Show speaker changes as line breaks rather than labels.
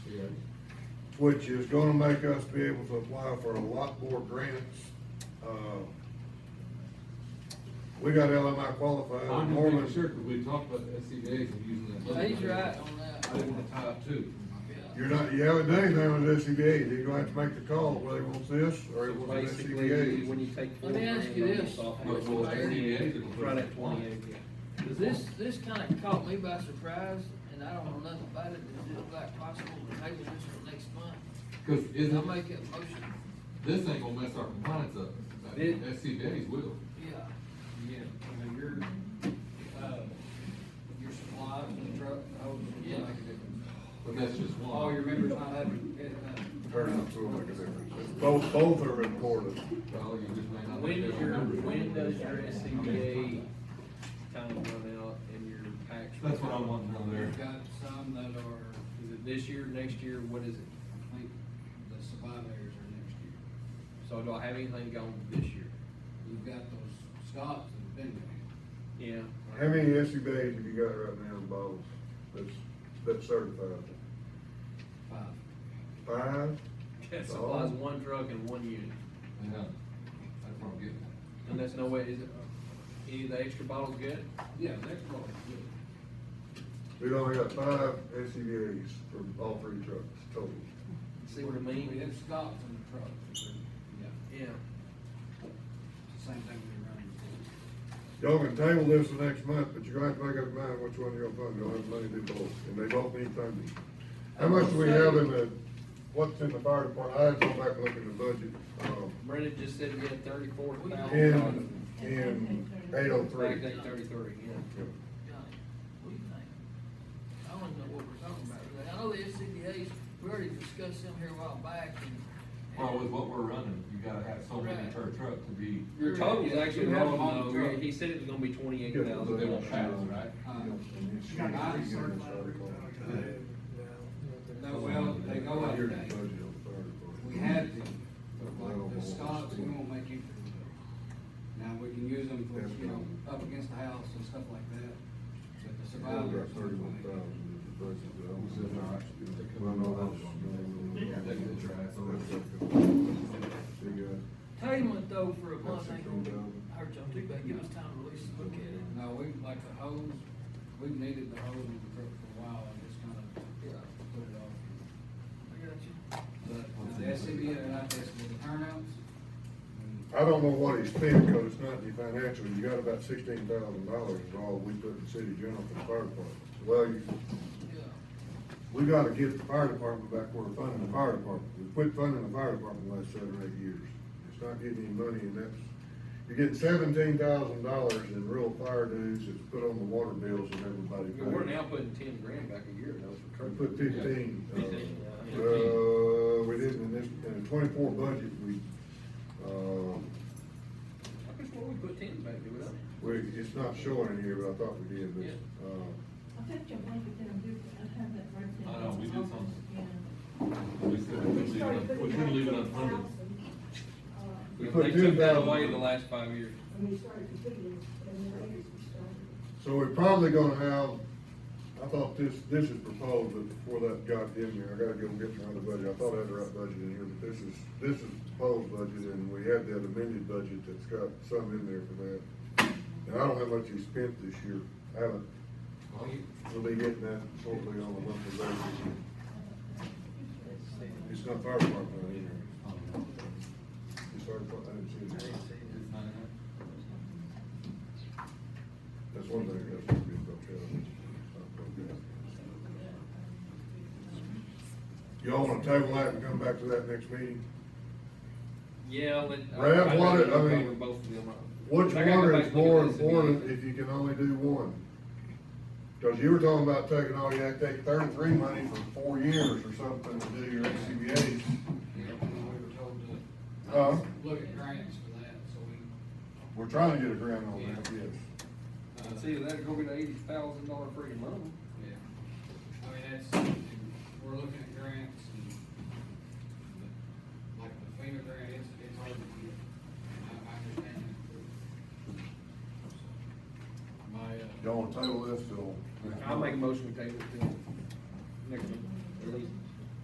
which is gonna make us be able to apply for a lot more grants. Uh, We got LMI qualified,
I'm just making sure,
Norman,
because we talked about the SCBA's and using that.
Well, he's right on that.
I didn't want to tie up two.
you're not, you haven't done anything with SCBA, you're gonna have to make the call, whether he wants this or he
So
wants an
Basically, you-
SCBA.
when you take.
Let me
four
ask
grand
you
on
this.
the soft-
But, well, SCBA's gonna put.
Right
it
at twenty-eight, yeah.
Does This, this kinda caught me by surprise, and I don't know nothing about it, is it like possible to table this for next month?
Because
Can I
isn't,
make a motion?
this ain't gonna mess our compliance up, Like,
It-
SCBA's will.
Yeah.
Yeah, I mean, your, uh, your supplies and truck, I would, yeah, make a difference.
But that's just one.
All your members not having, uh,
Turnout's gonna make a difference. Both, both are important.
Well, you just may not.
When
be
does
able to
your,
remember.
when does your SCBA kind of run out and your packs?
That's what I want to know
you've
there.
got some that are
Is it this year, next year, what is it?
complete, the survivors are next year.
So do I have anything going this year?
You've got those Scots that have been there.
Yeah.
How many SCBA's have you got right now, Bob, that's, that's certified?
five.
Five?
That supplies
Oh.
one truck and one unit,
Yeah, that's what I'm getting at.
and that's no way, is it, any of the extra bottles good?
Yeah, they're probably good.
We've only got five SCBA's for all three trucks total.
See what I
We
mean?
have Scots in the truck, so, yeah,
Yeah.
it's the same thing we
Y'all
run before.
can table this the next month, but you're gonna have to make up your mind which one you're gonna fund, y'all have money to do both, and they both need funding. How much do we have in the, what's in the fire department, I had to go back and look at the budget, um,
Brendan just said we had thirty-four
in,
thousand.
in eight oh
Back
three.
then, thirty-three, yeah.
Johnny, what do you think? I don't even know what we're talking about today. I know the SCBA's, we already discussed them here a while back and.
Well, with what we're running, you gotta have so many
Right.
per truck to be,
Your total is actually
You have them
wrong,
on the
though,
truck.
he said it was gonna be twenty-eight
but they
thousand.
won't pass, right?
No, well, they go out today. We had to, but like the Scots, we won't make you. Now, we can use them for, you know, up against the house and stuff like that, but the survivors.
Tabling though for a month,
That's
ain't
a
gonna
cool
hurt y'all too bad, give us time to at least look at it.
No, we, like the hose, we've needed the hose in the truck for a while, and just kind of
Yeah,
put it off.
I got you.
But the SCBA, and I guess with the turnouts, and
I don't know what he spent, cause it's not the financial, you got about sixteen thousand dollars is all we put in city general for the fire department. Well, you,
Yeah.
we gotta get the fire department back where we're funding the fire department, we quit funding the fire department the last seven, eight years. It's not getting any money, and that's, you're getting seventeen thousand dollars in real fire dues that's put on the water bills and everybody
We We're now
pays.
putting ten grand back a year, though, for
We
truck.
put fifteen, uh,
Fifteen, yeah.
uh, we did in this, in the twenty-four budget, we, uh,
I guess what we put ten back, do we not?
We, it's not showing in here, but I thought we did, but, uh,
I think your wife is gonna do, I have that right there.
I know, we did something.
Yeah.
We said we couldn't leave it, we couldn't leave it unfunded.
We
Yeah,
put
They
10,000.
took that away the last five years.
When we um, started the video, and the ladies were starting.
so we're probably gonna have, I thought this, this is proposed, but before that got in there, I gotta go get my other budget, I thought I had the right budget in here, but this is, this is proposed budget, and we have that amended budget that's got some in there for that. And I don't have much you spent this year, I haven't,
Well, you-
we'll be getting that hopefully on a monthly basis. It's not fire department in here,
oh,
it's fire department, I didn't see it.
It's not enough.
That's one thing that's gonna be about that. Y'all wanna table that and come back to that next meeting?
Yeah, let.
Brad,
I'd
what
rather
it- I
go
mean,
over both of them.
Which
I gotta go
one
back
is
and look at
more
this again.
important if you can only do one? Cause you were talking about taking all your Act Eight thirty-three money for four years or something to do your SCBA's.
we were told to
Huh?
look at grants for that, so we
We're trying to get a grant on that, yes.
uh,
And See, that'd go be the eighty thousand dollar freaking loan.
Yeah, I mean, that's, we're looking at grants and, the- like, the FEMA grant, it's, it's hard to get, I, I understand. that. uh, So, My, uh,
Y'all wanna table this till? next
I'll make a
month?
motion to table it.